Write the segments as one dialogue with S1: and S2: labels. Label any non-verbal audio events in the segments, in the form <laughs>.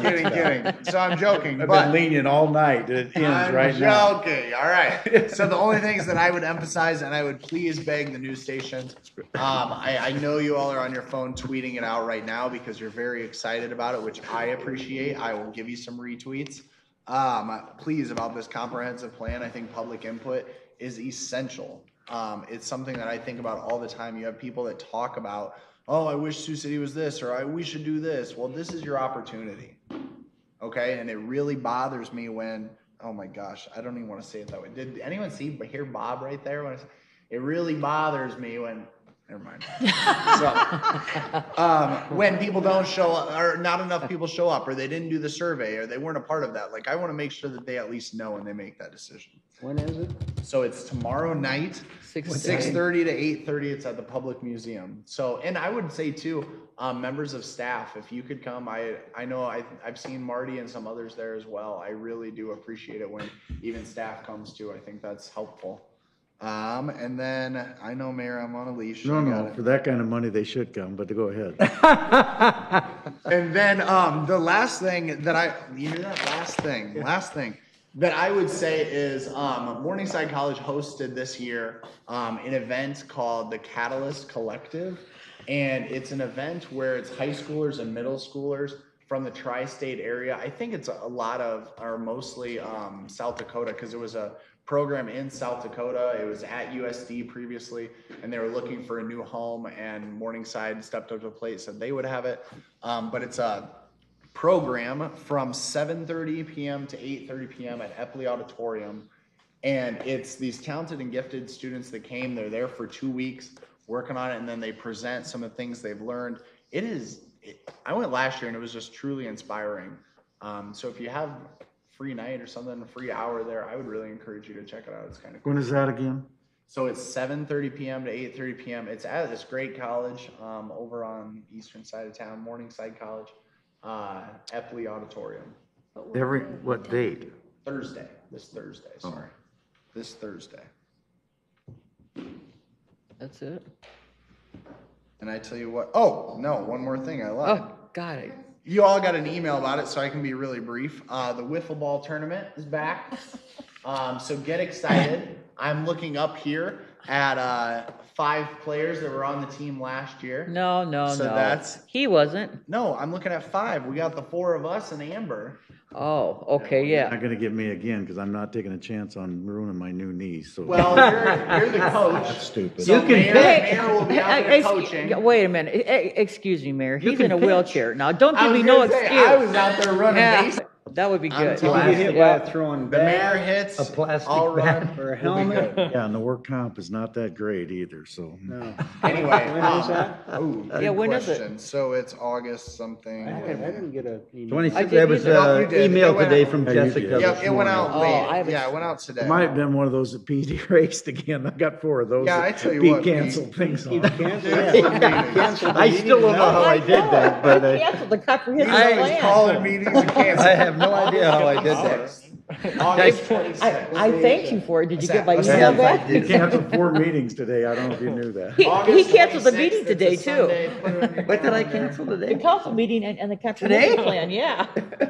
S1: Kidding, kidding. So I'm joking,
S2: I've been
S1: but
S2: lenient all night. It ends
S1: I'm
S2: right now.
S1: joking. All
S2: <laughs>
S1: right. So the only things that I would emphasize, and I would please beg the news stations, um, I, I know you all are on your phone tweeting it out right now because you're very excited about it, which I appreciate. I will give you some retweets. Um, please about this comprehensive plan. I think public input is essential. Um, it's something that I think about all the time. You have people that talk about, oh, I wish Sioux City was this, or I we should do this. Well, this is your opportunity okay? And it really bothers me when, oh my gosh, I don't even want to say it that way. Did anyone see but hear Bob right there? When I s- it really bothers me when, never mind. so, um, when people don't show up, or not enough people show up, or they didn't do the survey, or they weren't a part of that. Like I want to make sure that they at least know when they make that decision.
S3: When is it?
S1: So it's tomorrow night,
S3: Six
S1: six thirty to eight thirty. It's at the public museum. So, and I would say too, um, members of staff, if you could come, I, I know I, I've seen Marty and some others there as well. I really do appreciate it when even staff comes too. I think that's helpful. Um, and then I know Mayor, I'm on a leash.
S2: No,
S1: I got
S2: no,
S1: it.
S2: for that kind of money, they should come, but go <laughs> ahead.
S1: And then um, the last thing that I you hear that last thing, last thing that I would say is um, Morningside College hosted this year um, an event called the Catalyst Collective, and it's an event where it's high schoolers and middle schoolers from the tri-state area. I think it's a lot of or mostly um, South Dakota because it was a program in South Dakota. It was at USD previously, and they were looking for a new home. And Morningside stepped up to the plate, said they would have it. Um, but it's a program from 7:30 p.m. to 8:30 p.m. at Epley Auditorium. And it's these talented and gifted students that came. They're there for two weeks working on it, and then they present some of the things they've learned. It is. It, I went last year, and it was just truly inspiring. Um, so if you have a free night or something, a free hour there, I would really encourage you to check it out. It's kind of cool.
S2: When is that again?
S1: So it's 7:30 p.m. to 8:30 p.m. It's at this great college um, over on the eastern side of town, Morningside College, uh, Epley Auditorium.
S2: Every, what date?
S1: Thursday, this Thursday. Sorry, this Thursday.
S3: That's it?
S1: And I tell you what. Oh no, one more thing. I lied.
S3: Oh, got it.
S1: You all got an email about it, so I can be really brief. Uh, the wiffle ball tournament is back. Um, so get excited. I'm looking up here at uh, five players that were on the team last year.
S3: No, no,
S1: So
S3: no.
S1: that's-
S3: He wasn't.
S1: No, I'm looking at five. We got the four of us and Amber.
S3: Oh, okay, yeah.
S2: Not gonna get me again, because I'm not taking a chance on ruining my new knees,
S1: <laughs>
S2: so.
S1: Well, you're, you're the coach.
S2: Stupid.
S1: So Mayor,
S3: Hey,
S1: Mayor will be out
S3: eh,
S1: there
S3: eh,
S1: coaching.
S3: eh, Wait a minute. Eh, eh, Excuse me, Mayor. He's
S2: can
S3: in a
S2: pitch.
S3: wheelchair. Now, don't
S1: I
S3: give
S1: was
S3: me no
S1: gonna say, I was
S3: excuse.
S1: out there running
S3: Yeah,
S1: base.
S3: That would be
S1: I'm
S3: good.
S4: You
S1: telling
S4: get
S1: Plastic,
S4: hit by a throwing
S1: The mayor
S4: bag,
S1: hits.
S4: a plastic
S1: I'll run.
S4: bag, or a
S2: We'll be
S4: helmet.
S2: good. Yeah, and the work comp is not that great either, so.
S4: No.
S5: <laughs>
S1: Anyway.
S4: When is
S1: um,
S4: that?
S1: ooh,
S3: Yeah,
S1: good
S3: when is it?
S1: question. So it's August something.
S4: I
S1: Wait a
S4: didn't I
S1: minute.
S4: didn't get a. email.
S3: I
S5: 26,
S3: did
S5: that was
S3: either.
S1: No, you
S5: uh
S1: did. It
S5: email
S1: went
S5: today
S1: out.
S5: from
S2: Yeah, Oh, you
S5: Jessica.
S1: Yep,
S2: did.
S5: this
S1: it went
S5: morning.
S1: out
S3: Oh, I
S1: late.
S3: haven't-
S1: Yeah, it went out today.
S2: It might have been one of those that PD <laughs> raced again. I got four of those.
S1: Yeah,
S2: that
S1: I tell you
S2: Pete
S1: what, Pete.
S2: canceled things
S4: You
S2: on.
S4: <laughs> canceled
S1: Yeah.
S4: it. You canceled the
S5: I still don't
S4: meeting.
S5: know how I did that, but I,
S3: Canceled the comprehensive
S1: I was
S3: plan.
S1: calling meetings
S5: <laughs>
S1: and
S5: I
S1: canceling.
S5: have no idea how I did that.
S1: August twenty-sixth.
S3: I, I thank you for it. Did you get my
S1: Yes,
S3: email
S5: I
S2: <laughs>
S3: back?
S2: He canceled four meetings today. I don't know if you knew that.
S1: <laughs>
S3: He, he canceled the meeting today too. <laughs>
S5: What did I cancel
S3: The
S5: today?
S3: council meeting and, and the comprehensive
S5: Today?
S1: <laughs>
S3: plan, yeah.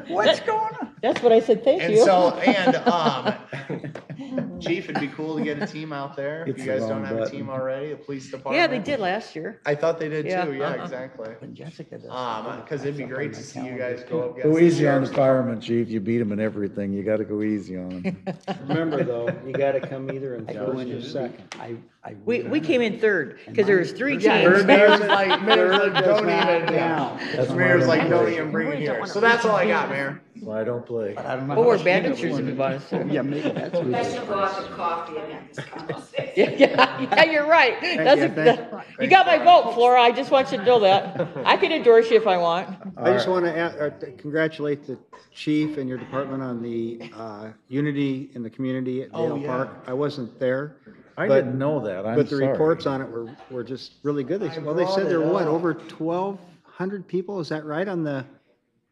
S5: What's
S3: That-
S5: going on?
S3: That's what I said, thank
S1: And
S3: you. <laughs>
S1: so, and um, Chief, it'd be cool to get a team out there. If
S2: It's
S1: you
S2: the
S1: guys
S2: wrong
S1: don't have a
S2: button.
S1: team already, the police department.
S3: Yeah, they did last year.
S1: I thought they did
S3: Yeah,
S1: too. Yeah,
S3: uh-uh.
S1: exactly.
S3: When Jessica does
S1: Um,
S3: something,
S1: because it'd be
S3: it's up
S1: great
S3: on
S1: to
S3: my
S1: see you
S3: calendar.
S1: guys go up against. the
S2: Go easy on the
S1: Sharks.
S2: fireman, chief. You beat him in everything. You gotta go easy on
S1: <laughs>
S2: him.
S4: <laughs> Remember though, you gotta come either in
S3: I
S4: first
S3: did.
S4: or second.
S5: I, I.
S3: We, we came in third, because there was three
S1: Yeah,
S3: teams.
S1: Mayor's
S4: Third
S1: like, Mayor's like, don't even, yeah.
S2: That's why I
S1: Mayor's
S2: don't
S1: like,
S2: play.
S1: don't even bring it
S6: We don't
S1: here.
S6: wanna
S1: So that's all I got, Mayor.
S2: That's why I don't play.
S5: I don't know.
S3: But
S5: how
S3: we're
S5: much
S3: banditures
S5: email
S3: in the bonus.
S5: it was. Yeah, maybe that's what
S6: I
S5: it
S6: should
S5: is.
S6: go out to coffee and have this conversation.
S3: Yeah, yeah, <laughs> yeah, you're right. That's,
S1: you,
S3: a-
S1: thank you.
S3: that- you
S1: Thank
S3: got
S1: you,
S3: my vote, Flora, I just want you to know that. I can endorse you if I want.
S4: I just want to congratulate the chief and your department on the uh, unity in the community at
S1: Oh,
S4: Dale
S1: yeah.
S4: Park. I wasn't there.
S2: I
S4: but-
S2: didn't know that. I'm sorry.
S4: But the reports on it were, were just really good. They-
S1: I
S4: Well, they
S1: brought
S4: said there
S1: it
S4: were, what,
S1: up.
S4: over 1,200 people? Is that right on the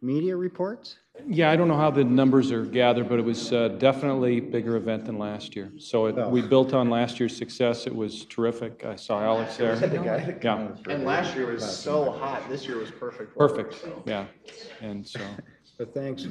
S4: media reports?
S7: Yeah, I don't know how the numbers are gathered, but it was uh, definitely a bigger event than last year. So it- we built on last year's success. It was terrific. I saw Alex there. Yeah,
S1: And last year was so hot. This year was perfect. weather,
S7: perfect,
S1: so.
S7: yeah. And so,
S4: But thanks